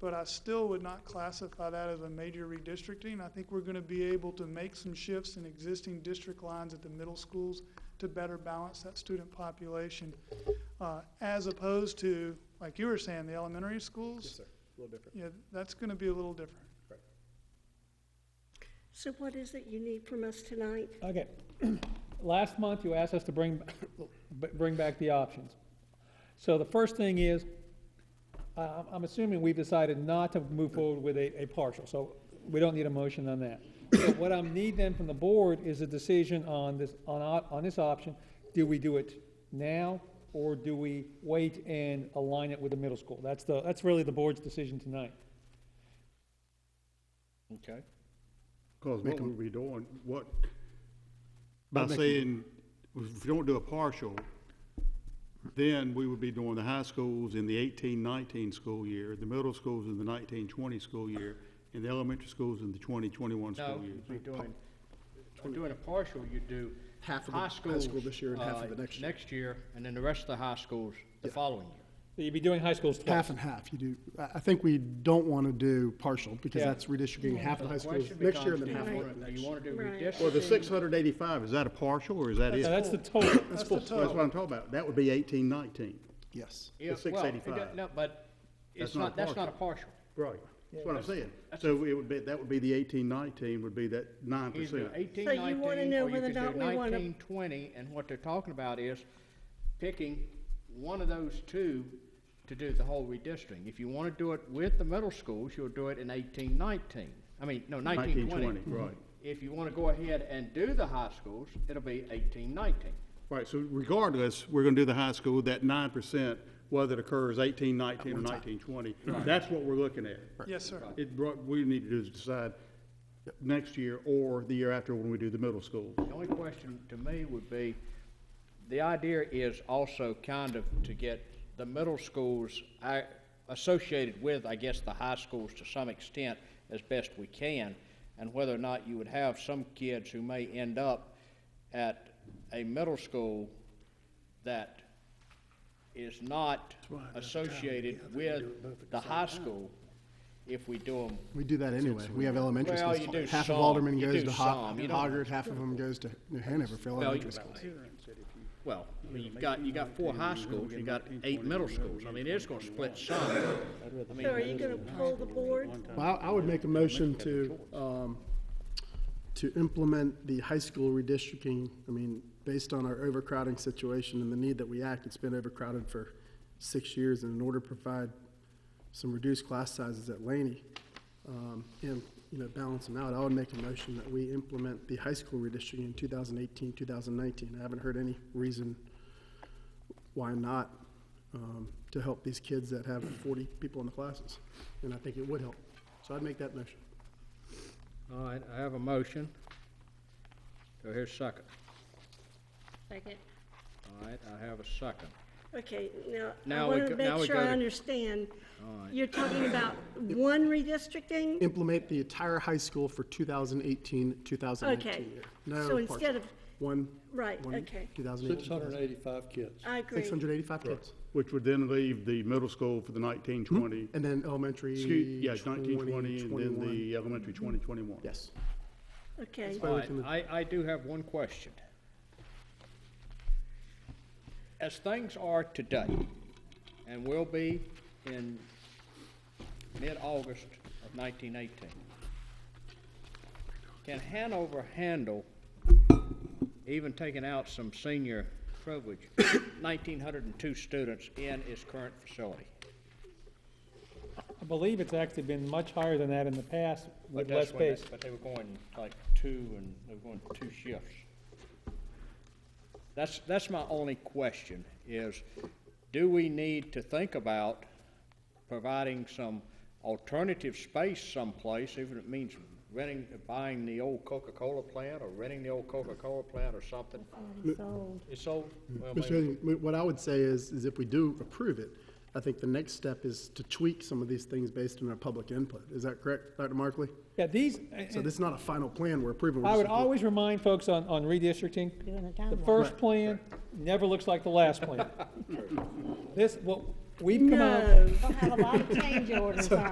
but I still would not classify that as a major redistricting. I think we're going to be able to make some shifts in existing district lines at the middle schools to better balance that student population, uh, as opposed to, like you were saying, the elementary schools. Yes, sir, a little different. Yeah, that's going to be a little different. So what is it you need from us tonight? Okay, last month you asked us to bring, b- bring back the options. So the first thing is, I- I'm I'm assuming we've decided not to move forward with a, a partial, so we don't need a motion on that. So What I need then from the board is a decision on this, on, op- on this option. Do we do it now, or do we wait and align it with the middle school? That's the, that's really the board's decision tonight. Okay. Because what we'll be doing, what, by I'll make a- saying, if you don't do a partial, then we would be doing the high schools in the eighteen, nineteen school year, the middle schools in the nineteen, twenty school year, and the elementary schools in the twenty, twenty-one No, school year. you're doing, doing a partial, you do Half of high the high schools. school this year and half of uh, the next year. Next year, and then the rest of the high schools the following year. So you'd be doing high schools twice. Half and half, you do, I, I think we don't want to do partial, because Yeah. that's redistricting half of the high schools Question next year becomes, and then do half you of wanna- the Do next. you want to do Right. redistricting? Well, the six hundred eighty-five, is that a partial or is that it? Now, that's the total. That's the That's what total. I'm talking about. That would be eighteen, nineteen. Yes. Yeah, six well, it eighty-five. don't- No, but it's That's not a not, that's not a partial. Right. That's what I'm saying. So it would be, that would be the eighteen, nineteen would be that nine Either percent. eighteen, So you nineteen, wanna or know you whether could or do not we wanna- nineteen, twenty, and what they're talking about is picking one of those two to do the whole redistricting. If you want to do it with the middle schools, you'll do it in eighteen, nineteen. I mean, no, nineteen, Nineteen, twenty. twenty, right. If you want to go ahead and do the high schools, it'll be eighteen, nineteen. Right, so regardless, we're gonna do the high school, that nine percent, whether it occurs eighteen, nineteen, or nineteen, twenty, that's what we're looking at. Yes, sir. It, brought- we need to do is decide next year or the year after when we do the middle school. The only question to me would be, the idea is also kind of to get the middle schools I- associated with, I guess, the high schools to some extent as best we can, and whether or not you would have some kids who may end up at a middle school that is not associated with the high school if we do them We do that anyway. We have elementary Well, schools. you do Half of some. Alderman You goes do to Ho- some. You don't- Hoggard, half of them goes to New Hanover for Well, you- elementary schools. Well, I mean, you've got, you got four high schools, you got eight middle schools, I mean, it's gonna split some. I mean, So are you gonna pull the board? Well, I I would make a motion to, um, to implement the high school redistricting. I mean, based on our overcrowding situation and the need that we act, it's been overcrowded for six years. And in order to provide some reduced class sizes at Laney, um, and, you know, balance them out, I would make a motion that we implement the high school redistricting in 2018, 2019. I haven't heard any reason why not, um, to help these kids that have 40 people in the classes. And I think it would help. So I'd make that motion. All right, I have a motion. Do I hear a second? Second. All right, I have a second. Okay, now, I Now we want go- to now make we sure go I to- understand. All right. You're talking about one redistricting? Implement the entire high school for 2018, 2019 year. Okay. No So partial. instead of, One. right, one okay. 2018. Six hundred and eighty-five kids. I agree. 685 kids. Which would then leave the middle school for the nineteen, twenty. And then elementary. Excuse, yeah, nineteen, 20, twenty, and then 21. the elementary, twenty, twenty-one. Yes. Okay, All right, I, I do have one question. As things are today, and will be in mid-August of nineteen eighteen, can Hanover handle, even taking out some senior privilege, nineteen hundred and two students in its current facility? I believe it's actually been much higher than that in the past But with less that's when they- space. But they were going like two, and they were going two shifts. That's, that's my only question, is do we need to think about providing some alternative space someplace, even if it means renting, buying the old Coca-Cola plant, or renting the old Coca-Cola plant or something? It's old, well, Mr. maybe, Henry, what I would say is, is if we do approve it, I think the next step is to tweak some of these things based on our public input. Is that correct, Dr. Markley? Yeah, these, So this is not a final plan we're approving. we're I just would approving. always remind folks on, on redistricting, the first plan never looks like the last plan. This, what, we've come out. no. We'll have a lot of change orders on